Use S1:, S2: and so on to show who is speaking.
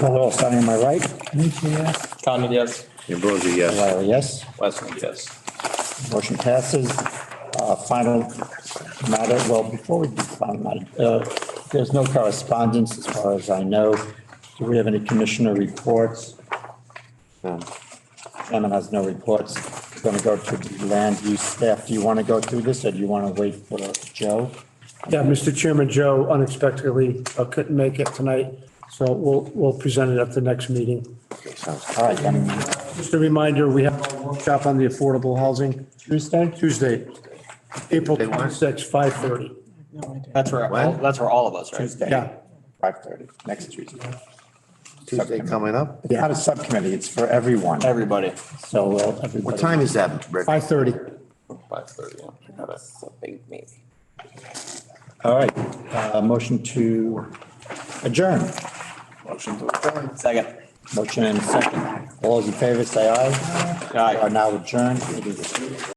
S1: Noel, starting on my right. Panitia, yes.
S2: Condon, yes.
S3: Ambrosi, yes.
S1: O'Reilly, yes.
S2: Westland, yes.
S1: Motion passes. Uh, Final matter, well, before we do final matter, uh, there's no correspondence as far as I know. Do we have any commissioner reports? Chairman has no reports. We're Going to go to the land use staff. Do you want to go through this or do you want to wait for Joe?
S4: Yeah, Mr. Chairman, Joe unexpectedly uh, couldn't make it tonight, so we'll, we'll present it at the next meeting.
S3: Okay, sounds
S1: All right, then,
S4: Just a reminder, we have a workshop on the affordable housing
S1: Tuesday?
S4: Tuesday, April
S3: They want-
S4: 26th, 5:30.
S2: That's where,
S3: What?
S2: that's where all of us, right?
S1: Tuesday.
S4: Yeah.
S1: Five thirty, next Tuesday.
S3: Tuesday coming up?
S1: It's not a subcommittee, it's for everyone,
S2: Everybody.
S1: so uh, everybody.
S3: What time is that,
S4: 5:30.
S3: Rick?
S2: Five thirty. That's a big meeting.
S1: All right, uh, motion to adjourn.
S2: Second.
S1: Motion and second. All those in favor, say aye.
S2: Aye.
S1: We Are now adjourned. It is-